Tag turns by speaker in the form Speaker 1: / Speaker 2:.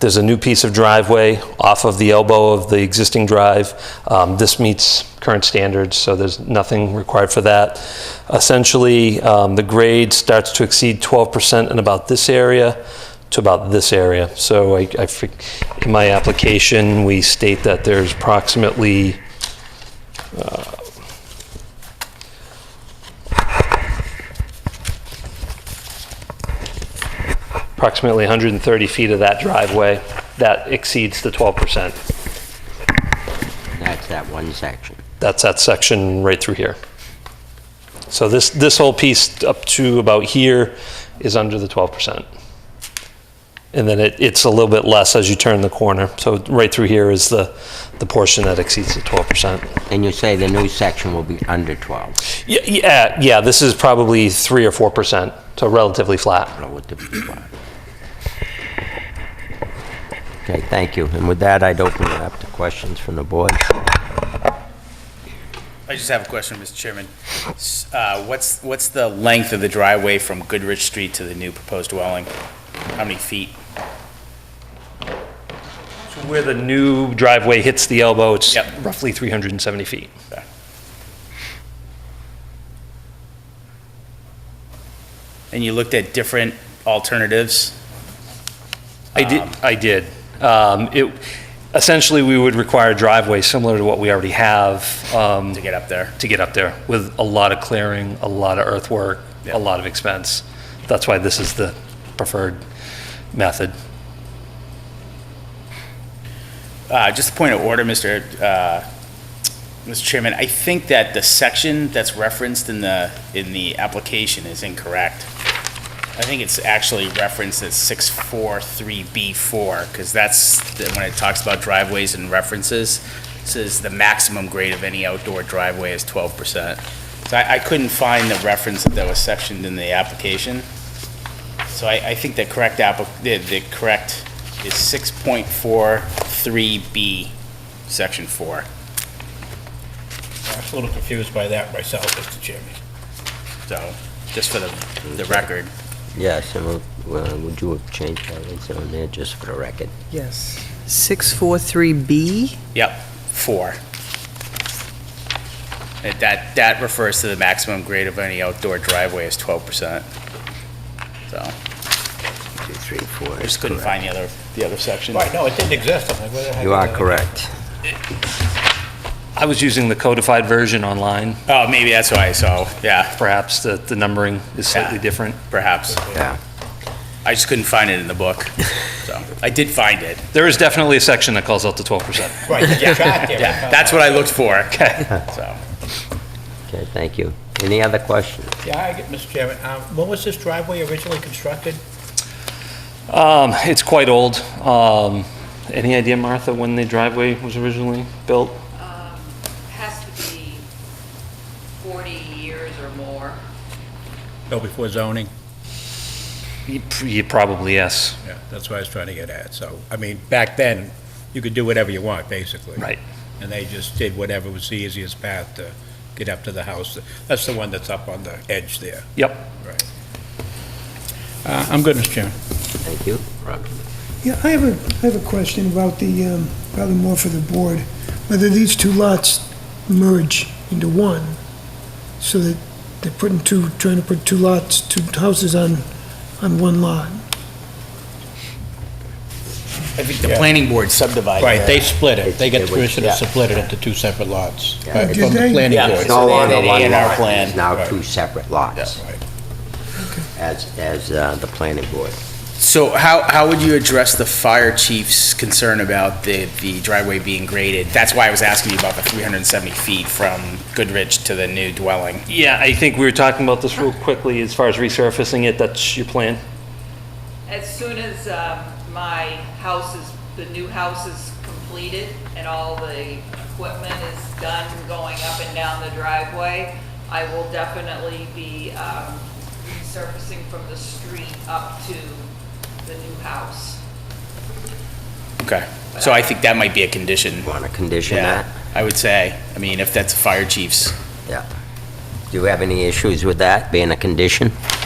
Speaker 1: There's a new piece of driveway off of the elbow of the existing drive. Um, This meets current standards, so there's nothing required for that. Essentially, um, the grade starts to exceed 12% in about this area to about this area. So I, I fig- in my application, we state that there's approximately approximately 130 feet of that driveway that exceeds the 12%.
Speaker 2: That's that one section.
Speaker 1: That's that section right through here. So this, this whole piece up to about here is under the 12%. And then it, it's a little bit less as you turn the corner. So right through here is the, the portion that exceeds the 12%.
Speaker 2: And you say the new section will be under 12,
Speaker 1: Yeah, yeah, yeah, this is probably 3 or 4%, so relatively flat.
Speaker 2: relatively flat. Okay, thank you. And with that, I'd open it up to questions from the board.
Speaker 3: I just have a question, Mr. Chairman. S- uh, What's, what's the length of the driveway from Goodrich Street to the new proposed dwelling? How many feet?
Speaker 1: Where the new driveway hits the elbow, it's
Speaker 3: Yep.
Speaker 1: roughly 370 feet.
Speaker 3: And you looked at different alternatives?
Speaker 1: I did, I did. Um, It, essentially, we would require a driveway similar to what we already have. Um, To
Speaker 3: get up there.
Speaker 1: To get up there, with a lot of clearing, a lot of earthwork,
Speaker 3: Yeah.
Speaker 1: a lot of expense. That's why this is the preferred method.
Speaker 3: Uh, Just a point of order, Mr. uh, Mr. Chairman, I think that the section that's referenced in the, in the application is incorrect. I think it's actually referenced as 643B4, because that's the- when it talks about driveways and references, it says the maximum grade of any outdoor driveway is 12%. So I I couldn't find the reference that was sectioned in the application. So I, I think the correct app, the, the correct is six point four three B, section four.
Speaker 4: I was a little confused by that myself, Mr. Chairman.
Speaker 3: So, just for the, the record.
Speaker 2: Yes, and we'll- well, would you have changed that, Lisa, on there, just for the record?
Speaker 5: Yes. 643B?
Speaker 3: Yep, four. That- That, that refers to the maximum grade of any outdoor driveway is twelve percent. So, I
Speaker 2: Two, three, four. is
Speaker 3: just couldn't
Speaker 2: correct.
Speaker 3: find the other, the other section.
Speaker 4: Right, no, it didn't exist. I'm like, where the heck
Speaker 2: You
Speaker 4: is
Speaker 2: are
Speaker 4: it?
Speaker 2: correct.
Speaker 1: I was using the codified version online,
Speaker 3: Oh, maybe that's why, so, yeah,
Speaker 1: perhaps the, the numbering is slightly
Speaker 3: Yeah.
Speaker 1: different.
Speaker 3: perhaps.
Speaker 2: Yeah.
Speaker 3: I just couldn't find it in the book. So, I did find it.
Speaker 1: There is definitely a section that calls out the 12%.
Speaker 4: Right, there's a chart there.
Speaker 3: Yeah, that's what I looked for. Okay. So.
Speaker 2: Okay, thank you. Any other questions?
Speaker 4: Yeah, I get, Mr. Chairman, um, when was this driveway originally constructed?
Speaker 1: Um, It's quite old. Um, Any idea, Martha, when the driveway was originally built?
Speaker 6: um, has to be 40 years or more.
Speaker 4: No, Oh, before zoning.
Speaker 1: You pr- you Probably, yes.
Speaker 4: Yeah, that's what I was trying to get at. So, I mean, back then, you could do whatever you want, basically.
Speaker 1: Right.
Speaker 4: And they just did whatever was the easiest path to get up to the house. That's the one that's up on the edge there.
Speaker 1: Yep.
Speaker 4: Right. Uh, I'm good, Mr. Chairman.
Speaker 2: Thank you. Rob?
Speaker 7: Yeah, I have a, I have a question about the, um, probably more for the board, whether these two lots merge into one, so that they're putting two, trying to put two lots, two houses on, on one lot.
Speaker 3: I think the planning board subdivided.
Speaker 4: Right, they split it. They got
Speaker 2: It
Speaker 4: the
Speaker 2: was-
Speaker 4: permission to
Speaker 2: yeah.
Speaker 4: split it into two separate lots.
Speaker 2: Yeah.
Speaker 4: Right, From the planning
Speaker 3: Yeah. So
Speaker 4: board.
Speaker 2: No
Speaker 3: they
Speaker 2: longer
Speaker 3: had an
Speaker 2: one
Speaker 3: A&R
Speaker 2: lot.
Speaker 3: plan.
Speaker 2: It's now
Speaker 4: Right.
Speaker 2: two separate lots,
Speaker 4: Right.
Speaker 2: as, as uh, the planning board.
Speaker 3: So how, how would you address the fire chief's concern about the, the driveway being graded? That's why I was asking you about the 370 feet from Goodrich to the new dwelling.
Speaker 1: Yeah, I think we were talking about this real quickly as far as resurfacing it. That's your plan?
Speaker 6: As soon as um, my house is, the new house is completed and all the equipment is done going up and down the driveway, I will definitely be um, resurfacing from the street up to the new house.
Speaker 3: Okay, so I think that might be a condition.
Speaker 2: Want to condition
Speaker 3: Yeah,
Speaker 2: that?
Speaker 3: I would say, I mean, if that's fire chief's,
Speaker 2: Yeah. Do you have any issues with that being a condition?
Speaker 6: um,